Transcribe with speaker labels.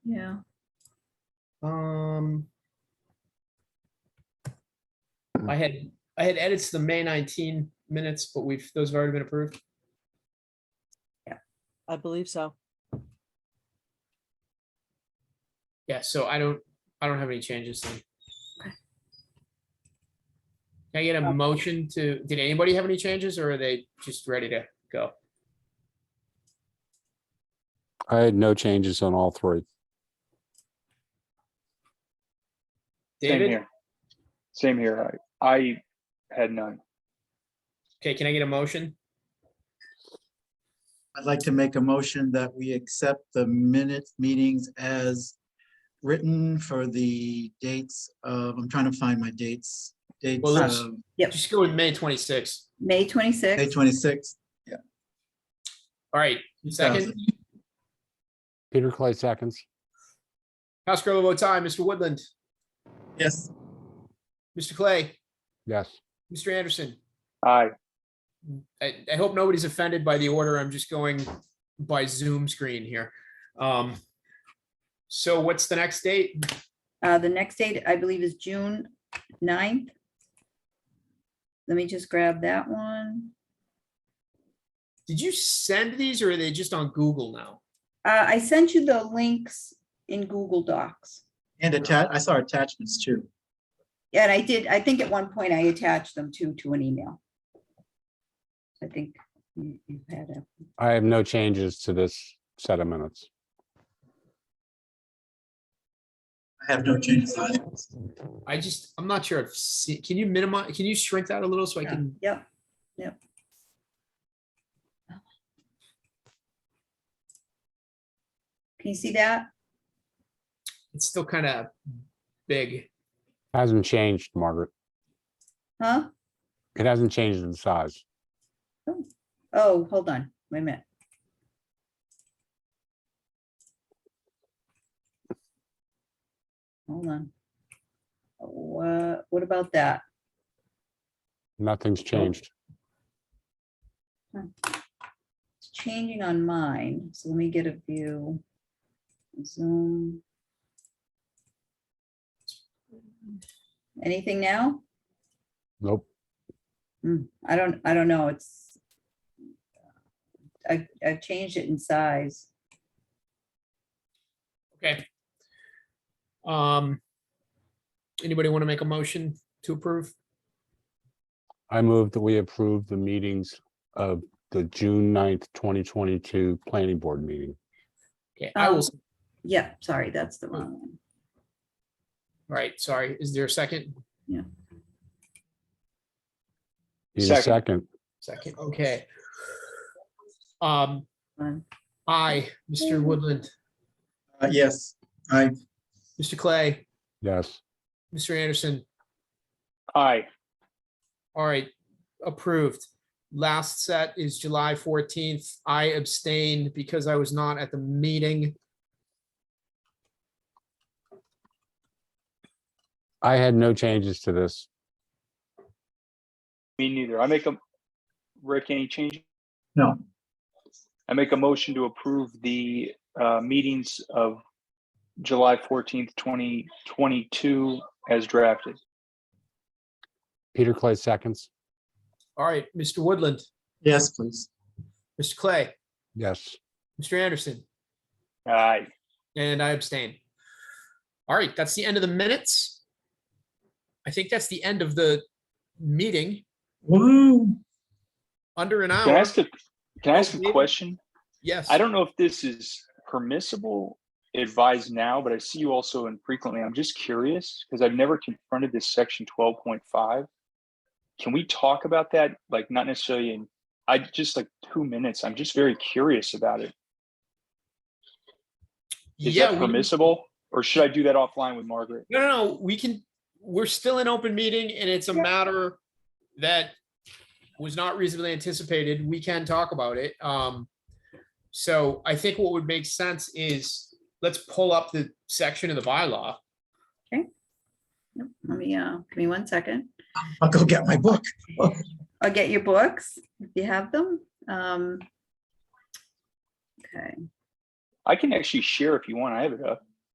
Speaker 1: Um. I had, I had edits to the May nineteen minutes, but we've, those have already been approved.
Speaker 2: I believe so.
Speaker 1: Yeah, so I don't, I don't have any changes then. Can I get a motion to, did anybody have any changes or are they just ready to go?
Speaker 3: I had no changes on all three.
Speaker 4: Same
Speaker 1: David,
Speaker 4: here. Same here. I, I had none.
Speaker 1: okay, can I get a motion?
Speaker 5: I'd like to make a motion that we accept the minute meetings as written for the dates of, I'm trying to find my dates. Dates
Speaker 1: Well, let's-
Speaker 5: of
Speaker 6: Yep.
Speaker 1: Just go with May twenty-six.
Speaker 6: May
Speaker 5: May
Speaker 6: 26th.
Speaker 5: twenty-sixth.
Speaker 1: All right, second,
Speaker 3: Peter Clay seconds.
Speaker 1: House Grove votes aye. Mr. Woodland,
Speaker 5: Yes.
Speaker 1: Mr. Clay,
Speaker 3: Yes.
Speaker 1: Mr. Anderson.
Speaker 4: I,
Speaker 1: I, I hope nobody's offended by the order. I'm just going by Zoom screen here. Um, so what's the next date?
Speaker 6: Uh, the next date, I believe, is June 9th. Let me just grab that one.
Speaker 1: Did you send these or are they just on Google now?
Speaker 6: Uh, I sent you the links in Google Docs.
Speaker 5: And attach, I saw attachments too.
Speaker 6: Yeah, and I did, I think at one point I attached them to, to an email. I think you you had a,
Speaker 3: I have no changes to this set of minutes.
Speaker 5: I have no changes on it.
Speaker 1: I just, I'm not sure. I've seen, can you minimize, can you shrink that a little so I can?
Speaker 6: yep, yep. Can you see that?
Speaker 1: It's still kind of big.
Speaker 3: Hasn't changed, Margaret.
Speaker 6: Huh?
Speaker 3: It hasn't changed in size.
Speaker 6: Oh, hold on, wait a minute. Hold on. What, what about that?
Speaker 3: Nothing's changed.
Speaker 6: It's changing on mine, so let me get a view. Zoom. Anything now?
Speaker 3: Nope.
Speaker 6: Hmm, I don't, I don't know, it's. I, I've changed it in size.
Speaker 1: Okay. Um, anybody want to make a motion to approve?
Speaker 3: I move that we approve the meetings of the June 9th, twenty twenty-two planning board meeting.
Speaker 1: Okay, I will,
Speaker 6: Um,
Speaker 1: s-
Speaker 6: Yeah, sorry, that's the wrong one.
Speaker 1: all right, sorry. Is there a second?
Speaker 3: Need a
Speaker 4: Second.
Speaker 3: second?
Speaker 1: Second, okay. Um,
Speaker 6: One.
Speaker 1: aye, Mr. Woodland,
Speaker 5: Uh, Yes, I,
Speaker 1: Mr. Clay,
Speaker 3: Yes.
Speaker 1: Mr. Anderson.
Speaker 4: I,
Speaker 1: All right, approved. Last set is July fourteenth. I abstained because I was not at the meeting.
Speaker 3: I had no changes to this.
Speaker 4: me neither. I make a, Rick, any change?
Speaker 5: no,
Speaker 4: I make a motion to approve the, uh, meetings of July fourteenth, twenty twenty-two as drafted.
Speaker 3: Peter Clay seconds.
Speaker 1: All right, Mr. Woodland,
Speaker 5: yes, please.
Speaker 1: Mr. Clay,
Speaker 3: Yes.
Speaker 1: Mr. Anderson,
Speaker 4: Aye.
Speaker 1: and I abstain. All right, that's the end of the minutes. I think that's the end of the meeting,
Speaker 5: Woo.
Speaker 1: under an
Speaker 4: Can I
Speaker 1: hour.
Speaker 4: ask a, can I ask a
Speaker 1: David?
Speaker 4: question?
Speaker 1: Yes.
Speaker 4: I don't know if this is permissible advised now, but I see you also infrequently. I'm just curious because I've never confronted this section twelve point five. Can we talk about that? Like not necessarily in, I just like two minutes. I'm just very curious about it. Is
Speaker 1: Yeah,
Speaker 4: that
Speaker 1: we-
Speaker 4: permissible? Or should I do that offline with Margaret?
Speaker 1: No, no, no, we can, we're still in open meeting and it's a
Speaker 6: Yeah.
Speaker 1: matter that was not reasonably anticipated. We can talk about it. Um, so I think what would make sense is let's pull up the section of the bylaw.
Speaker 6: Yep, Let me, uh, give me one second.
Speaker 5: I'll go get my book.
Speaker 6: I'll get your books if you have them. Um. Okay,
Speaker 4: I can actually share if you want. I have it up.